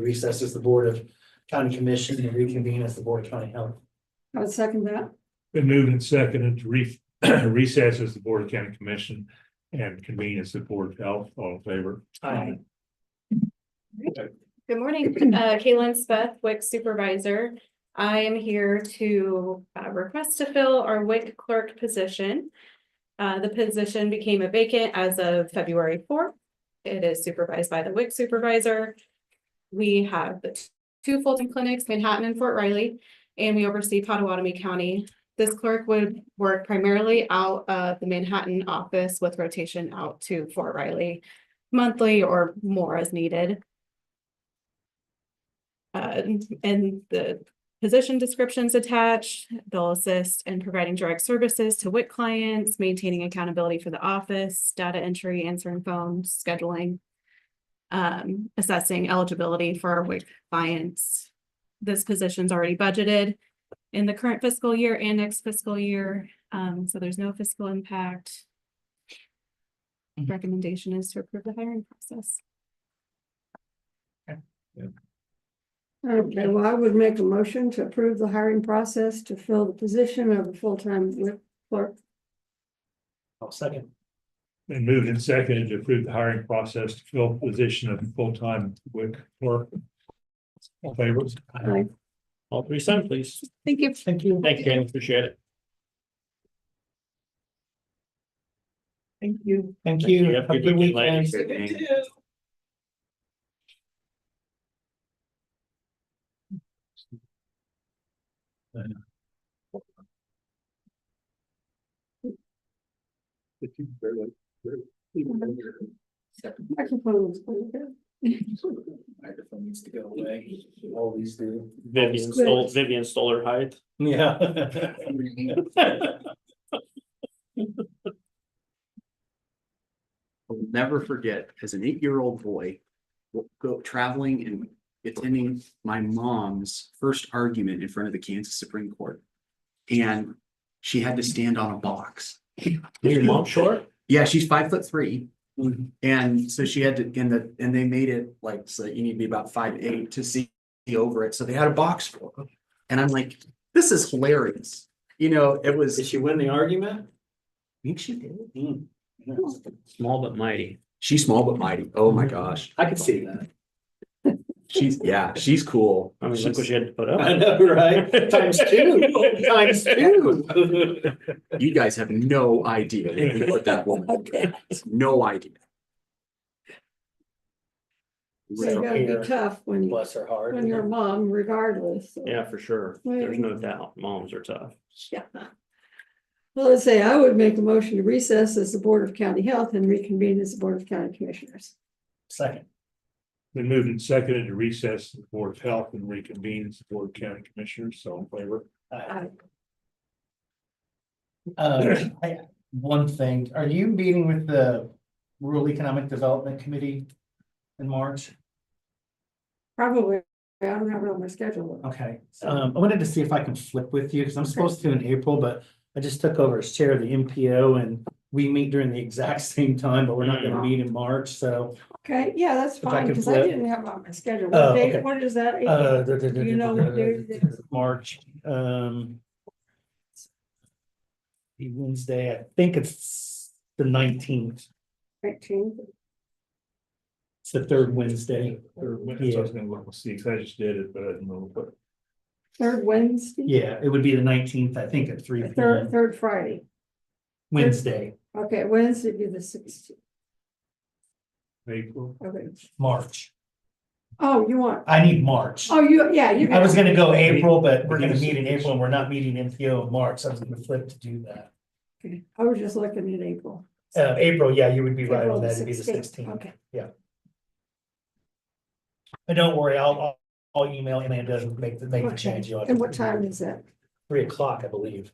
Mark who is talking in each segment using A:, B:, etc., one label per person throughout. A: recess as the Board of County Commission and reconvene as the Board of County Health.
B: I would second that.
C: Been moved and seconded to re- recess as the Board of County Commission and convene as the Board of Health, all in favor.
A: Aye.
D: Good morning, uh, Kaylin Speth, WIC Supervisor. I am here to uh, request to fill our WIC clerk position. Uh, the position became a vacant as of February fourth. It is supervised by the WIC Supervisor. We have the t- two full-time clinics, Manhattan and Fort Riley, and we oversee Potawatomi County. This clerk would work primarily out of the Manhattan office with rotation out to Fort Riley monthly or more as needed. Uh, and the position descriptions attached, they'll assist in providing direct services to WIC clients, maintaining accountability for the office, data entry, answering phones, scheduling. Um, assessing eligibility for WIC clients. This position's already budgeted in the current fiscal year and next fiscal year, um, so there's no fiscal impact. Recommendation is to approve the hiring process.
B: Okay, well, I would make a motion to approve the hiring process to fill the position of the full-time WIC clerk.
A: I'll Oh, second.
C: Been moved and seconded to approve the hiring process to fill the position of full-time WIC clerk. All in favor.
B: Aye.
E: All three signed, please.
D: Thank you.
A: Thank you.
E: Thank you, Ken. Appreciate it.
A: Thank you. Thank
E: you.
A: you. Have a good weekend.
E: Good weekend.
B: Microphone was pretty good.
A: Microphone needs to go away. Always do.
E: Vivian stole, Vivian stole her height.
A: Yeah.
F: I will never forget as an eight-year-old boy, w- go traveling and attending my mom's first argument in front of the Kansas Supreme Court. And she had to stand on a box.
E: Your mom short? Mm-hmm.
F: Yeah, she's five foot three. And so she had to, and the, and they made it like, so you need to be about five eight to see over it. So they had a box for her. And I'm like, this is hilarious. You know, it was,
A: Did
F: I
A: she win the argument?
F: think she did.
A: Hmm.
E: Small but mighty.
F: She's small but mighty. Oh my
E: Mm-hmm.
F: gosh.
A: I could see that.
F: She's, yeah, she's cool.
E: I mean, look what
F: She's-
E: she had to put
A: I
E: up.
A: know, right? Times two, times two.
F: You guys have no idea what that woman, no idea.
B: So You gotta be tough when, you-
A: Bless her heart.
B: when you're a mom regardless. so-
E: Yeah, for sure. There's no doubt. Moms are tough.
B: Yeah. Well, let's say I would make a motion to recess as the Board of County Health and reconvene as the Board of County Commissioners.
A: Second.
C: Been moved and seconded to recess the Board of Health and reconvene as the Board of County Commissioners, so in favor.
A: Uh, I- One thing, are you meeting with the Rural Economic Development Committee in March?
B: Probably, I don't have it on my schedule.
A: Okay, um, I wanted to see if I can flip with you, because I'm supposed to in April, but I just took over as chair of the MPO and we meet during the exact same time, but we're not gonna meet in March, so.
B: Okay, yeah, that's
A: If I
B: fine,
A: can
B: because I
A: flip.
B: didn't have it on my schedule.
A: Oh,
B: What
A: okay.
B: date, what is that?
A: uh,
B: You know what day it is?
A: March, um. Wednesday, I think it's the nineteenth,
B: Nineteen.
A: it's the third Wednesday.
C: Or when- so I was gonna look and see, 'cause I just did it, but I didn't know what.
B: Third Wednesday?
A: Yeah, it would be the nineteenth, I think, at three P
B: Third,
A: M,
B: third Friday.
A: Wednesday,
B: Okay, Wednesday be the sixteenth.
C: April.
B: Okay.
A: March.
B: Oh, you want,
A: I need March.
B: oh, you, yeah, you.
A: I was gonna go April, but we're
C: But
A: gonna
C: you-
A: meet in April and we're not meeting MPO in March, so I was gonna flip to do that.
B: Okay, I was just looking at April.
A: Uh, April, yeah, you would be right
B: April
A: on
B: the
A: that, it'd be the
B: 16th,
A: sixteenth.
B: Okay,
A: But don't worry, I'll, I'll, I'll email Amanda and make the, make the
B: Okay.
A: change. You'll have
B: and
A: to-
B: what time is that?
A: Three o'clock, I believe.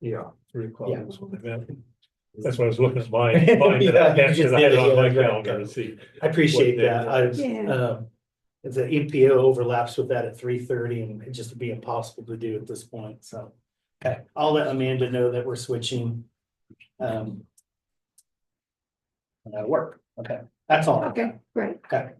C: Yeah. Three o'clock.
A: Yeah.
C: or something like that. That's why I was looking at my.
A: Yeah,
C: mine, but I had
A: you just
C: it
A: did it,
C: on my
A: yeah, right.
C: calendar to see.
A: I appreciate
C: What day
A: that. I,
B: Yeah,
A: um, the MPO overlaps with that at three thirty and it just would be impossible to do at this point, so. Okay, I'll let Amanda know that we're switching. Um. and That'll work. Okay, that's all. I've got.
B: okay, great.
A: Okay.